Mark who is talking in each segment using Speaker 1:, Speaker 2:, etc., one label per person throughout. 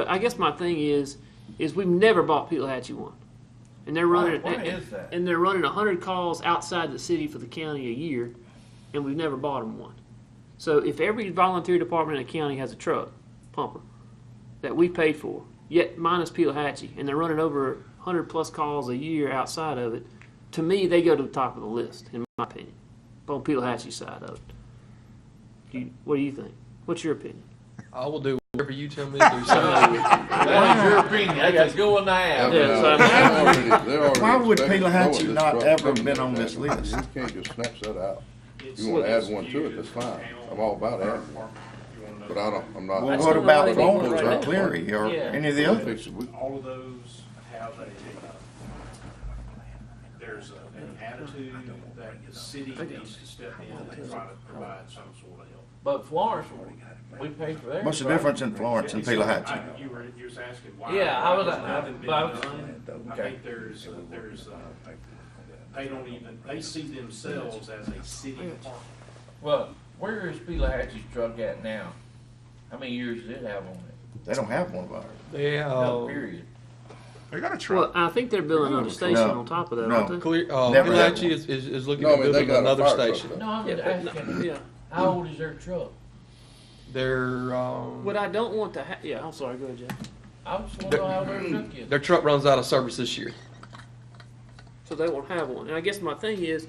Speaker 1: But I guess my thing is, is we've never bought Peelahatchie one, and they're running.
Speaker 2: Why- why
Speaker 1: and,
Speaker 2: is that?
Speaker 1: And they're running hundred calls outside the city for the county a year, and we've never bought them one. So if every volunteer department in the county has a truck pumper that we paid for, yet minus Peelahatchie, and they're running over hundred plus calls a year outside of it, to me they go to the top of the list in my opinion, on Peelahatchie's side of it. Do you, what do you think? What's your opinion?
Speaker 3: I will do whatever you tell me to do. So
Speaker 2: That is your opinion. That's a good one to have.
Speaker 1: Yeah,
Speaker 4: uh,
Speaker 1: so I mean-
Speaker 5: Why
Speaker 4: Why
Speaker 5: would Pelahatchie not ever been on this list?
Speaker 4: You can't just snatch that out. You wanna add one to it, that's fine. I'm all about adding one. But I don't, I'm not.
Speaker 5: Well,
Speaker 1: That's
Speaker 5: what
Speaker 1: not
Speaker 5: about
Speaker 1: the way they
Speaker 5: Florence
Speaker 1: do it.
Speaker 5: or Cleary or
Speaker 2: Yeah.
Speaker 5: any of the others?
Speaker 4: Fix it. We-
Speaker 6: all of those have a, there's a- an attitude that the city needs to step in and try to provide some sort of help.
Speaker 2: But Florence, we paid for theirs.
Speaker 5: What's the
Speaker 2: right?
Speaker 5: difference in Florence and
Speaker 6: I-
Speaker 5: Pelahatchie?
Speaker 6: You were, you was asking why.
Speaker 2: Yeah, I was-
Speaker 6: why has nothing been
Speaker 2: but I was-
Speaker 6: done? I think there's, there's, uh, they don't even, they see themselves as a city department.
Speaker 2: Well, where is Pelahatchie's truck at now? How many years did it have on it?
Speaker 5: They don't have one of ours.
Speaker 3: yeah,
Speaker 1: Oh.
Speaker 2: No,
Speaker 3: uh,
Speaker 2: period.
Speaker 7: They got a
Speaker 1: Well,
Speaker 7: truck.
Speaker 1: I think they're building another station
Speaker 5: No.
Speaker 1: on top of that,
Speaker 5: No.
Speaker 1: aren't they?
Speaker 3: clear. Uh,
Speaker 5: Never had
Speaker 3: Pelahatchie
Speaker 5: one.
Speaker 3: is, is, is looking
Speaker 4: No, I
Speaker 3: at
Speaker 4: mean, they
Speaker 3: building
Speaker 4: got a
Speaker 3: another
Speaker 4: fire truck
Speaker 3: station.
Speaker 4: though.
Speaker 2: No, I'm
Speaker 1: Yeah,
Speaker 2: just
Speaker 1: but-
Speaker 2: asking,
Speaker 1: Yeah.
Speaker 2: how old is their truck?
Speaker 3: Their um,
Speaker 1: What I don't want to ha- yeah, I'm sorry, go ahead, Jeff.
Speaker 2: I just wanna know how their truck is.
Speaker 3: their truck runs out of service this year.
Speaker 1: So they won't have one. And I guess my thing is,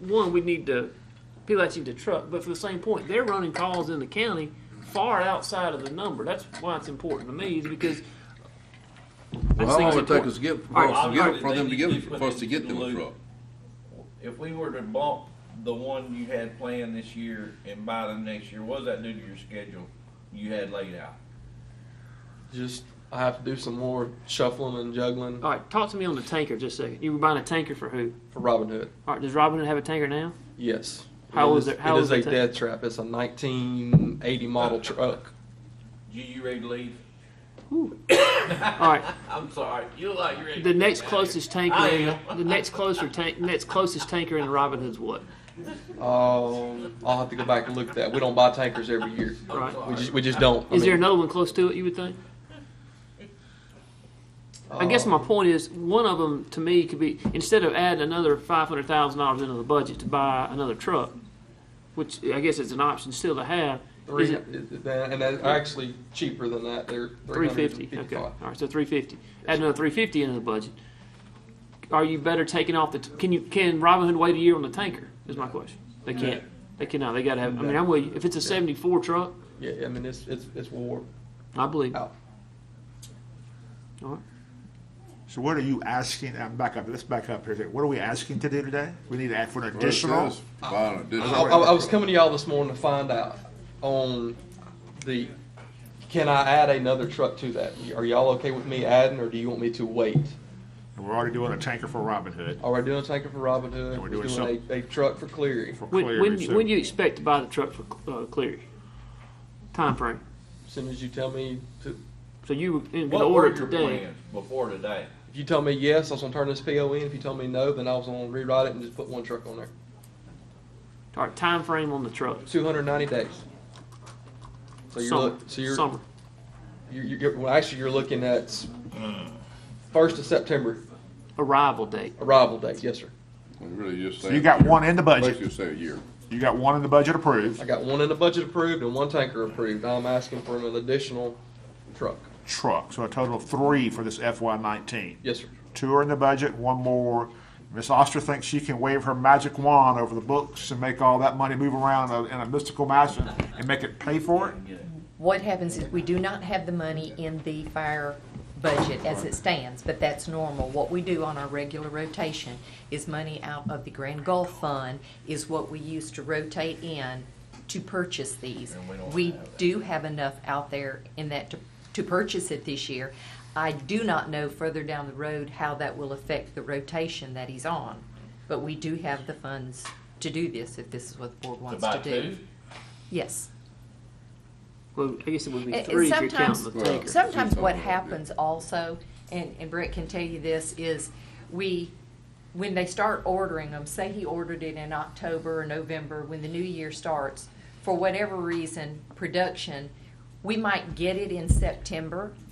Speaker 1: one, we need to, people actually need to truck, but for the same point, they're running calls in the county far outside of the number. That's why it's important to me, is because. I
Speaker 4: Well,
Speaker 1: just
Speaker 4: how
Speaker 1: think
Speaker 4: long would it
Speaker 1: it's
Speaker 4: take us
Speaker 1: important.
Speaker 4: to get, for
Speaker 1: All
Speaker 4: us to
Speaker 2: right,
Speaker 4: get
Speaker 2: all
Speaker 4: it, for
Speaker 2: right,
Speaker 4: them
Speaker 2: they
Speaker 4: to get,
Speaker 2: need
Speaker 4: it-
Speaker 2: to put
Speaker 4: for us to
Speaker 2: it
Speaker 4: get
Speaker 2: in
Speaker 4: them
Speaker 2: the
Speaker 4: a
Speaker 2: loop.
Speaker 4: truck?
Speaker 2: If we were to bump the one you had planned this year and buy them next year, what does that do to your schedule you had laid out?
Speaker 3: Just I have to do some more shuffling and juggling
Speaker 1: All right, talk to me on the tanker just a second. You were buying a tanker for who?
Speaker 3: for Robin Hood.
Speaker 1: All right, does Robin Hood have a tanker now?
Speaker 3: Yes.
Speaker 1: How
Speaker 3: It
Speaker 1: is it- how
Speaker 3: it
Speaker 1: is
Speaker 3: is
Speaker 1: it
Speaker 3: a
Speaker 1: ta-
Speaker 3: death trap. It's a 1980 model truck.
Speaker 2: You, you ready to leave?
Speaker 1: All right,
Speaker 2: I'm sorry, you look like you're ready.
Speaker 1: the
Speaker 2: to
Speaker 1: next
Speaker 2: get out of here.
Speaker 1: closest tanker,
Speaker 2: I
Speaker 1: in-
Speaker 2: am.
Speaker 1: the next closer tank, next closest tanker in Robin Hood's what?
Speaker 3: Um, I'll have to go back and look at that. We don't buy tankers every year.
Speaker 1: Right.
Speaker 3: We just we just don't. I
Speaker 1: Is there
Speaker 3: mean,
Speaker 1: another one close to it? You would think. I guess
Speaker 3: uh,
Speaker 1: my point is, one of them to me could be instead of adding another five hundred thousand dollars into the budget to buy another truck, which I guess is an option still to have.
Speaker 3: Three,
Speaker 1: is it
Speaker 3: and that's actually cheaper than that. They're
Speaker 1: three fifty? Okay, all right, so three fifty. Add another three fifty into the budget. Are you better taking off the? T- can you can Robinhood wait a year on the tanker? Is my question. They can't. They cannot. They got to have. I mean, I'm with you. If it's a seventy-four truck,
Speaker 3: Yeah, I mean it's it's it's war
Speaker 1: I believe.
Speaker 3: out.
Speaker 1: All right.
Speaker 7: So what are you asking? I'm back up. Let's back up here. What are we asking to do today? We need to ask for
Speaker 4: Well,
Speaker 7: an
Speaker 4: it
Speaker 7: additional.
Speaker 4: says Buy an
Speaker 3: I,
Speaker 4: additional.
Speaker 3: I, I was coming to y'all this morning to find out on the can I add another truck to that? Are y'all okay with me adding, or do you want me to wait?
Speaker 7: And We're already doing a tanker for Robin Hood.
Speaker 3: Are we doing a tanker for Robin Hood?
Speaker 7: We're
Speaker 3: We're
Speaker 7: doing
Speaker 3: doing,
Speaker 7: something.
Speaker 3: a, a truck for Cleary.
Speaker 7: for
Speaker 1: When
Speaker 7: Cleary,
Speaker 1: when, do you-
Speaker 7: so-
Speaker 1: when do you expect to buy the truck for uh, Cleary? Time frame.
Speaker 3: As soon as you tell me to,
Speaker 1: So you in
Speaker 2: What
Speaker 1: order
Speaker 2: were your
Speaker 1: today.
Speaker 2: plans before today?
Speaker 3: if you tell me yes, I was gonna turn this PO in. If you tell me no, then I was gonna rewrite it and just put one truck on there.
Speaker 1: All right, time frame on the truck.
Speaker 3: Two hundred ninety days. So you're
Speaker 1: summer.
Speaker 3: look, so you're
Speaker 1: summer.
Speaker 3: You're, you're, well, actually, you're looking at
Speaker 1: Mm.
Speaker 3: first of September
Speaker 1: arrival date.
Speaker 3: arrival date. Yes, sir.
Speaker 4: We Really just
Speaker 7: So
Speaker 4: saying
Speaker 7: you got
Speaker 4: year.
Speaker 7: one in the budget.
Speaker 4: Basically say a year.
Speaker 7: You got one in the budget approved.
Speaker 3: I got one in the budget approved and one tanker approved. I'm asking for an additional truck.
Speaker 7: Truck. So a total of three for this FY nineteen.
Speaker 3: Yes, sir.
Speaker 7: Two are in the budget, one more. Miss Oster thinks she can wave her magic wand over the books and make all that money move around in a mystical fashion and make it pay for it.
Speaker 8: What happens is we do not have the money in the fire budget as it stands, but that's normal. What we do on our regular rotation is money out of the Grand Gulf Fund is what we use to rotate in to purchase these.
Speaker 2: And we don't
Speaker 8: We
Speaker 2: have that.
Speaker 8: do have enough out there in that to, to purchase it this year. I do not know further down the road how that will affect the rotation that he's on, but we do have the funds to do this if this is what the board
Speaker 2: To
Speaker 8: wants
Speaker 2: buy
Speaker 8: to do.
Speaker 2: two?
Speaker 8: Yes.
Speaker 1: Well, I guess it would be
Speaker 8: And- and
Speaker 1: three if you're counting
Speaker 8: sometimes-
Speaker 1: the
Speaker 4: Well,
Speaker 1: tanker.
Speaker 8: Sometimes
Speaker 4: Something
Speaker 8: what
Speaker 4: like that.
Speaker 8: happens also, and, and Brett can tell you this, is we, when they start ordering them, say he ordered it in October or November, when the new year starts, for whatever reason, production, We might get it in September